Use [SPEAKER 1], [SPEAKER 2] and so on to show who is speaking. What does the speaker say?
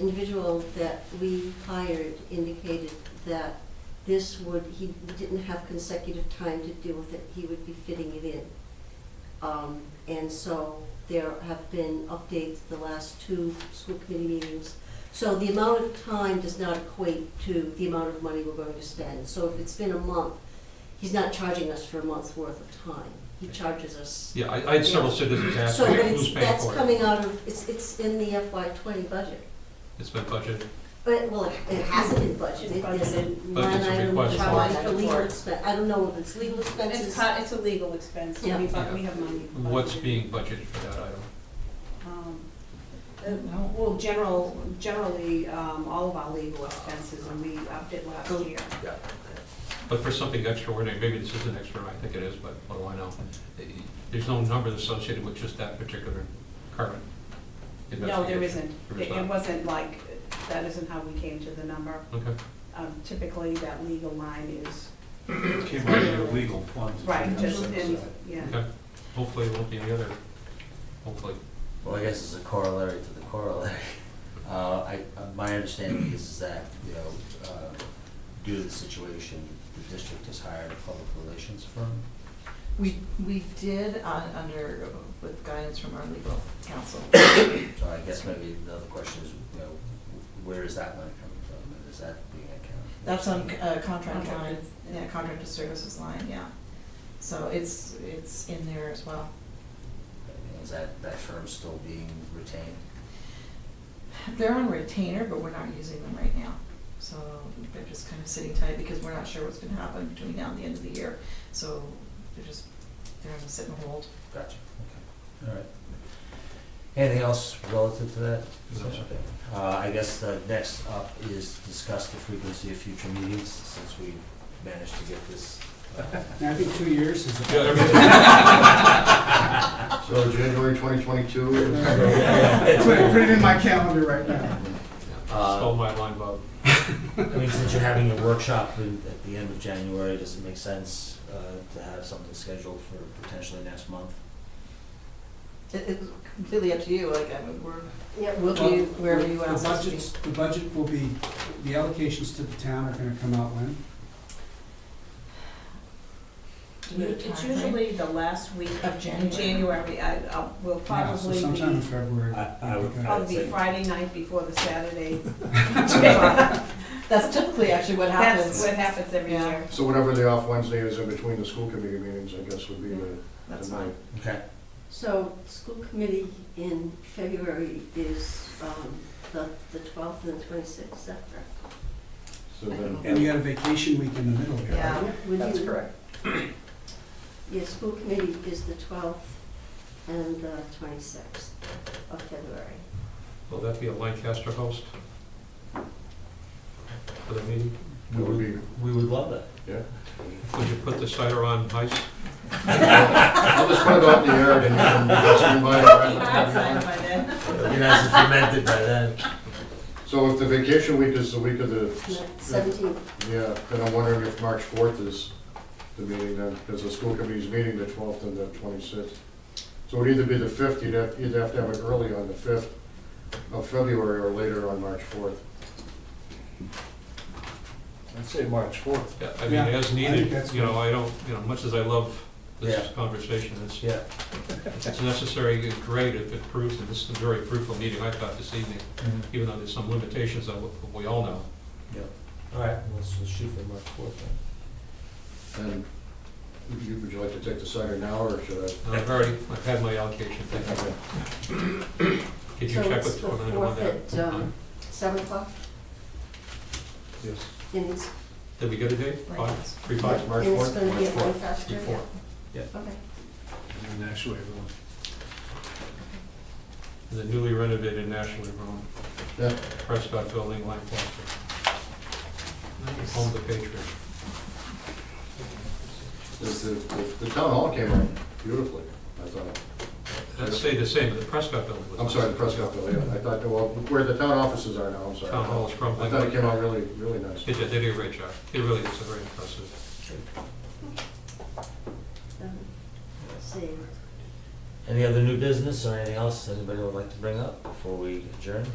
[SPEAKER 1] individual that we hired indicated that this would, he didn't have consecutive time to deal with it, he would be fitting it in. Um, And so there have been updates the last two school committee meetings. So the amount of time does not equate to the amount of money we're going to spend. So if it's been a month, he's not charging us for a month's worth of time. He charges us.
[SPEAKER 2] Yeah, I, I had several citizens ask
[SPEAKER 1] So
[SPEAKER 2] me
[SPEAKER 1] but
[SPEAKER 2] who's
[SPEAKER 1] it's,
[SPEAKER 2] paying
[SPEAKER 1] that's
[SPEAKER 2] for it.
[SPEAKER 1] coming out of, it's, it's in the FY twenty budget.
[SPEAKER 2] It's been budgeted.
[SPEAKER 1] But, well, it- it hasn't been budgeted, there's
[SPEAKER 3] It's
[SPEAKER 1] a
[SPEAKER 3] budgeted.
[SPEAKER 2] But
[SPEAKER 1] line
[SPEAKER 2] it's a
[SPEAKER 1] item
[SPEAKER 2] request
[SPEAKER 3] for
[SPEAKER 1] probably
[SPEAKER 3] it.
[SPEAKER 1] for legal expense, I don't know if it's legal
[SPEAKER 3] It's,
[SPEAKER 1] expenses.
[SPEAKER 3] co- it's a legal expense, so we,
[SPEAKER 1] Yeah.
[SPEAKER 3] bu- we have money.
[SPEAKER 2] What's
[SPEAKER 3] budgeted.
[SPEAKER 2] being budgeted for that item?
[SPEAKER 3] Um, uh, Well, general, generally, um, all of our legal expenses, and we upped it last year.
[SPEAKER 2] Yeah. But for something extraordinary, maybe this isn't extraordinary, I think it is, but what do I know? Eh, There's no number associated with just that particular current investigation.
[SPEAKER 3] No, there isn't.
[SPEAKER 2] There is
[SPEAKER 3] It it
[SPEAKER 2] not.
[SPEAKER 3] wasn't like, that isn't how we came to the number.
[SPEAKER 2] Okay,
[SPEAKER 3] Um, Typically, that legal line is,
[SPEAKER 4] Came out of your legal funds.
[SPEAKER 3] right,
[SPEAKER 4] It's
[SPEAKER 3] just,
[SPEAKER 4] set
[SPEAKER 3] and,
[SPEAKER 4] aside.
[SPEAKER 3] yeah.
[SPEAKER 2] okay. Hopefully it won't be any other, hopefully.
[SPEAKER 5] Well, I guess it's a corollary to the corollary. Uh, I, uh, my understanding is is that, you know, uh, due to the situation, the district has hired a public relations firm.
[SPEAKER 6] We, we did on, under, with guidance from our legal counsel.
[SPEAKER 5] So I guess maybe the other question is, you know, where is that money coming from? And is that being accounted? for?
[SPEAKER 6] That's on uh, contract line,
[SPEAKER 3] Contracted.
[SPEAKER 6] yeah, contracted services line, yeah. So it's, it's in there as well.
[SPEAKER 5] And Is that, that firm still being retained?
[SPEAKER 6] They're on retainer, but we're not using them right now. So they're just kind of sitting tight because we're not sure what's gonna happen between now and the end of the year. So they're just, they're gonna sit and hold.
[SPEAKER 5] Gotcha, okay, all right. Anything else relative to that?
[SPEAKER 2] No, sir.
[SPEAKER 5] Uh, I guess the next up is discuss the frequency of future meetings, since we managed to get this.
[SPEAKER 7] I think two years is
[SPEAKER 2] Yeah,
[SPEAKER 7] about.
[SPEAKER 2] everything-
[SPEAKER 8] So January 2022
[SPEAKER 7] Put it- put it in my calendar right now.
[SPEAKER 2] Stole my line, Bob.
[SPEAKER 5] I mean, since you're having a workshop in- at the end of January, does it make sense uh, to have something scheduled for potentially next month?
[SPEAKER 6] It, it's completely up to you, like, I mean, we're,
[SPEAKER 1] Yeah,
[SPEAKER 6] we'll do wherever you want
[SPEAKER 7] The
[SPEAKER 6] us to be.
[SPEAKER 7] budgets, the budget will be, the allocations to the town are gonna come out when?
[SPEAKER 6] Do we have a
[SPEAKER 3] It's
[SPEAKER 6] timeframe?
[SPEAKER 3] usually the last week
[SPEAKER 6] Of
[SPEAKER 3] of
[SPEAKER 6] January.
[SPEAKER 3] January. I, I'll- we'll
[SPEAKER 7] Yeah, so
[SPEAKER 3] probably
[SPEAKER 7] sometime in
[SPEAKER 3] be,
[SPEAKER 7] February.
[SPEAKER 5] I- I would-
[SPEAKER 7] Okay.
[SPEAKER 3] probably
[SPEAKER 5] I'd
[SPEAKER 3] be
[SPEAKER 5] say-
[SPEAKER 3] Friday night before the Saturday.
[SPEAKER 6] That's typically actually what
[SPEAKER 3] That's
[SPEAKER 6] happens.
[SPEAKER 3] what happens every
[SPEAKER 6] Yeah.
[SPEAKER 3] year.
[SPEAKER 8] So whatever the off Wednesday is in between the school committee meetings, I guess would be the
[SPEAKER 6] That's
[SPEAKER 8] the
[SPEAKER 6] fine.
[SPEAKER 8] night.
[SPEAKER 5] Okay.
[SPEAKER 1] So, school committee in February is, um, the, the twelfth and twenty-sixth, is that correct?
[SPEAKER 8] So then-
[SPEAKER 7] And you got a vacation week in the middle here.
[SPEAKER 6] Yeah.
[SPEAKER 1] Would
[SPEAKER 4] That's
[SPEAKER 1] you-
[SPEAKER 4] correct.
[SPEAKER 1] Yeah, school committee is the twelfth and the twenty-sixth of February.
[SPEAKER 2] Will that be a Lancaster host? For the meeting?
[SPEAKER 8] It would be,
[SPEAKER 5] We would love that.
[SPEAKER 8] yeah.
[SPEAKER 2] Would you put the cider on ice?
[SPEAKER 8] I'll just put it out in the air and you can just invite
[SPEAKER 3] Outside
[SPEAKER 8] around.
[SPEAKER 3] by then.
[SPEAKER 5] It hasn't fermented by then.
[SPEAKER 8] So if the vacation week is the week of the,
[SPEAKER 1] Seventeenth,
[SPEAKER 8] yeah, then I'm wondering if March 4th is the meeting then, because the school committee's meeting the 12th and the 26th. So it'd either be the 5th, you'd have, you'd have to have it early on the 5th of February or later on March 4th.
[SPEAKER 4] I'd say March fourth.
[SPEAKER 2] Yeah, I mean,
[SPEAKER 7] Yeah, I
[SPEAKER 2] as
[SPEAKER 7] think
[SPEAKER 2] needed,
[SPEAKER 7] that's
[SPEAKER 2] you know, I don't, you know, much as I love this
[SPEAKER 5] Yeah.
[SPEAKER 2] conversation, it's,
[SPEAKER 5] Yeah.
[SPEAKER 2] it's necessary and great if it proves, and this is a very fruitful meeting I thought this evening,
[SPEAKER 5] Mm-hmm.
[SPEAKER 2] even though there's some limitations on what we all know.
[SPEAKER 5] All right, let's let's shoot for March fourth then.
[SPEAKER 8] And would you- would you like to take the cider now or should I?
[SPEAKER 2] And I've already, I've had my allocation, thank you. Could
[SPEAKER 1] so
[SPEAKER 2] you check
[SPEAKER 1] it's
[SPEAKER 2] with
[SPEAKER 1] the
[SPEAKER 2] Tony on
[SPEAKER 1] fourth
[SPEAKER 2] that?
[SPEAKER 1] at, um, seven o'clock,
[SPEAKER 2] Yes.
[SPEAKER 1] and it's,
[SPEAKER 2] Did we get a date? Five, three, five?
[SPEAKER 8] March
[SPEAKER 1] and it's
[SPEAKER 8] 4th?
[SPEAKER 1] gonna be
[SPEAKER 8] March
[SPEAKER 1] at Lancaster.
[SPEAKER 8] 4th.
[SPEAKER 2] Three, four.
[SPEAKER 1] Okay.
[SPEAKER 4] And then actually, everyone.
[SPEAKER 2] The newly renovated nationally renowned
[SPEAKER 8] Yeah.
[SPEAKER 2] Prescott Building, Lancaster. Home of the Patriots.
[SPEAKER 8] The, the- the town hall came out beautifully, I thought.
[SPEAKER 2] Let's say the same, but the Prescott Building was.
[SPEAKER 8] I'm sorry, the Prescott Pavilion, I thought, well, where the town offices are now, I'm sorry.
[SPEAKER 2] Town Hall is crumbling.
[SPEAKER 8] I thought it came out really, really nice.
[SPEAKER 2] They did, they did a great job. It really was a very impressive.
[SPEAKER 1] Um, Same.
[SPEAKER 5] Any other new business or anything else anybody would like to bring up before we adjourn?